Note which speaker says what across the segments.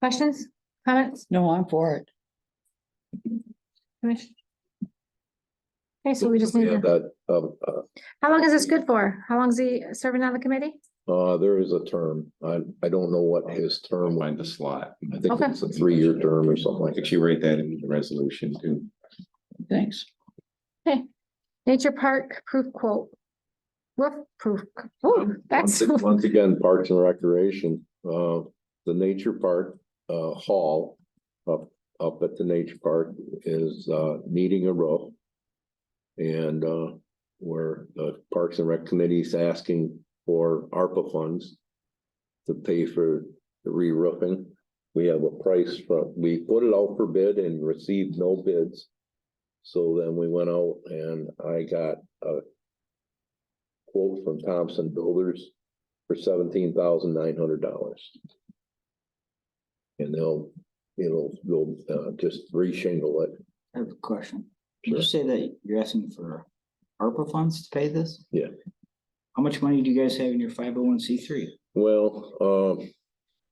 Speaker 1: Questions, comments,
Speaker 2: No, I'm for it.
Speaker 1: commission? Okay, so we just need,
Speaker 3: Yeah,
Speaker 1: to-
Speaker 3: that, um, uh,
Speaker 1: how long is this good for? How long is he serving on the committee?
Speaker 3: uh, there is a term. I, I don't know what his term,
Speaker 4: Find the slot.
Speaker 3: I think
Speaker 1: Okay.
Speaker 3: it's a three-year term or something like
Speaker 4: Could
Speaker 3: that.
Speaker 4: you write that in the resolution too?
Speaker 2: Thanks.
Speaker 1: Nature Park Proof Quote. Roof proof, oh, that's,
Speaker 3: Once ag- Once again, Parks and Recreation, uh, the Nature Park, uh, Hall up, up at the Nature Park is, uh, needing a roof. And, uh, where the Parks and Rec Committee's asking for ARPA funds to pay for the re-roofing. We have a price from, we put it out for bid and received no bids. So then we went out and I got a quote from Thompson Builders for seventeen thousand nine hundred dollars. And they'll, it'll, they'll, uh, just re-shingle it,
Speaker 5: I have a question. Did you say that you're asking for ARPA funds to pay this?
Speaker 3: Yeah.
Speaker 5: How much money do you guys have in your five oh one C three?
Speaker 3: Well, um,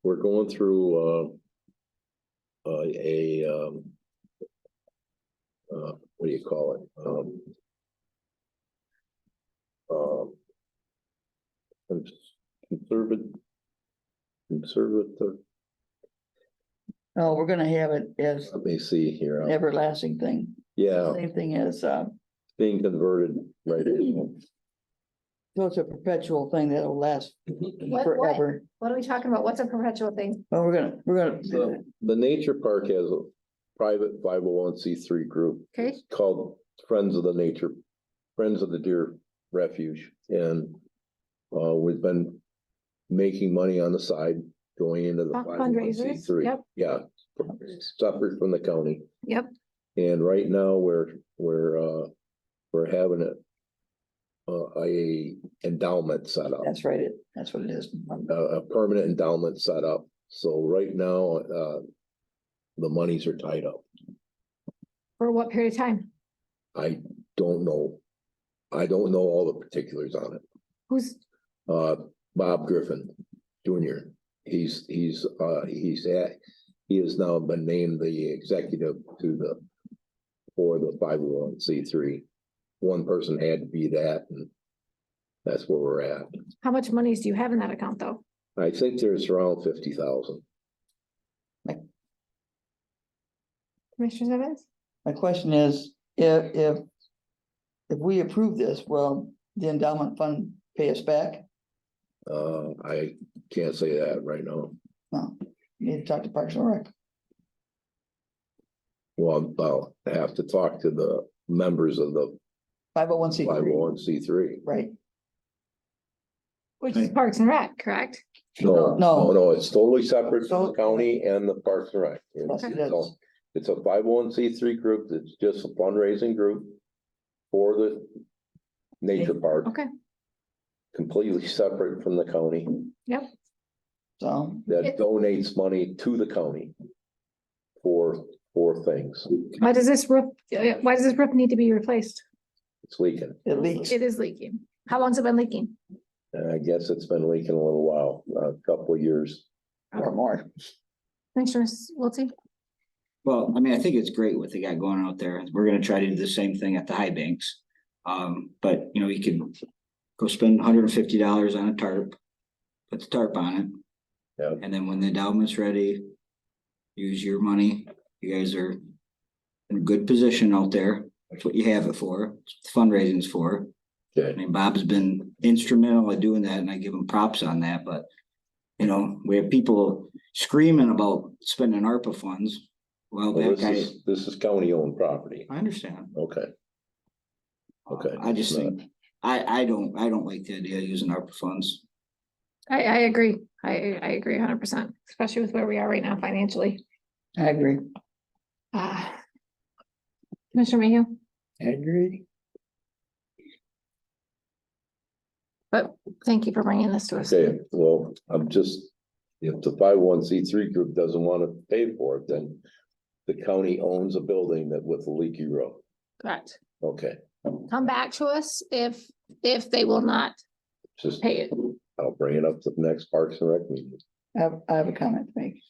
Speaker 3: we're going through, uh, uh, a, um, uh, what do you call it? Um, um, cons- conservat- conservative,
Speaker 2: Oh, we're gonna have it as
Speaker 3: let me see here. I'm-
Speaker 2: everlasting thing,
Speaker 3: Yeah,
Speaker 2: same thing as, uh,
Speaker 3: being converted right in.
Speaker 2: so it's a perpetual thing that'll last
Speaker 3: Mhm.
Speaker 1: what?
Speaker 2: forever.
Speaker 1: what are we talking about? What's a perpetual thing?
Speaker 2: Well, we're gonna, we're gonna,
Speaker 3: The the nature park has a private five oh one C three group.
Speaker 1: Okay.
Speaker 3: It's Called Friends of the Nature, Friends of the Deer Refuge, and uh, we've been making money on the side, going into the five oh one C
Speaker 1: Fundraisers,
Speaker 3: three.
Speaker 1: yep.
Speaker 3: Yeah, separate from the county.
Speaker 1: Yep,
Speaker 3: And right now, we're, we're, uh, we're having a uh, a endowment set up.
Speaker 2: that's right, it, that's what it is.
Speaker 3: a, a permanent endowment set up. So right now, uh, the monies are tied up.
Speaker 1: for what period of time?
Speaker 3: I don't know. I don't know all the particulars on it.
Speaker 1: Who's,
Speaker 3: Uh, Bob Griffin Junior, he's, he's, uh, he's at, he has now been named the executive to the, for the five oh one C three. One person had to be that and that's where we're at.
Speaker 1: how much monies do you have in that account, though?
Speaker 3: I think there's around fifty thousand.
Speaker 1: Commissioners Evans?
Speaker 2: My question is, if, if, if we approve this, will the endowment fund pay us back?
Speaker 3: Uh, I can't say that right now.
Speaker 2: No, you need to talk to Parks and Rec.
Speaker 3: Well, I'll have to talk to the members of the
Speaker 2: Five oh one C
Speaker 3: five oh
Speaker 2: three,
Speaker 3: one C three.
Speaker 2: right?
Speaker 1: Which is
Speaker 5: Hey.
Speaker 1: Parks and Rec, correct?
Speaker 3: No,
Speaker 2: No.
Speaker 3: no, no, it's totally separate from the county and the Parks and Rec.
Speaker 2: Yes, it is.
Speaker 3: So, It's a five oh one C three group that's just a fundraising group for the nature park,
Speaker 1: Okay,
Speaker 3: completely separate from the county
Speaker 2: So,
Speaker 3: that donates money to the county for, for things.
Speaker 1: why does this roof, uh, why does this roof need to be replaced?
Speaker 3: It's leaking.
Speaker 2: it leaks,
Speaker 1: It is leaking. How long's it been leaking?
Speaker 3: And I guess it's been leaking a little while, a couple of years.
Speaker 2: or more.
Speaker 1: Commissioners Wiltie?
Speaker 5: Well, I mean, I think it's great what they got going out there. We're gonna try to do the same thing at the high banks. Um, but you know, you can go spend hundred and fifty dollars on a tarp. Put the tarp on it.
Speaker 3: Yep.
Speaker 5: And then when the endowment's ready, use your money. You guys are in a good position out there. That's what you have it for. It's what Fundraising's for. I
Speaker 3: Okay.
Speaker 5: mean, Bob's been instrumental in doing that and I give him props on that, but. You know, we have people screaming about spending ARPA funds. Well,
Speaker 3: Well,
Speaker 5: that
Speaker 3: this
Speaker 5: guy,
Speaker 3: is, this is county owned property.
Speaker 5: I understand.
Speaker 3: Okay. Okay,
Speaker 5: I just
Speaker 3: it's not-
Speaker 5: think, I, I don't, I don't like the idea of using ARPA funds.
Speaker 1: I, I agree. I, I agree hundred percent, especially with where we are right now financially.
Speaker 2: I agree.
Speaker 1: Uh, Commissioner Mayhew,
Speaker 2: I agree.
Speaker 1: but thank you for bringing this to us.
Speaker 3: Okay, well, I'm just, if the five oh one C three group doesn't want to pay for it, then the county owns a building that with a leaky roof.
Speaker 1: Correct.
Speaker 3: Okay,
Speaker 1: Come back to us if, if they will not
Speaker 3: just,
Speaker 1: pay it.
Speaker 3: I'll bring it up to the next Parks and Rec meeting.
Speaker 2: I have, I have a comment to make.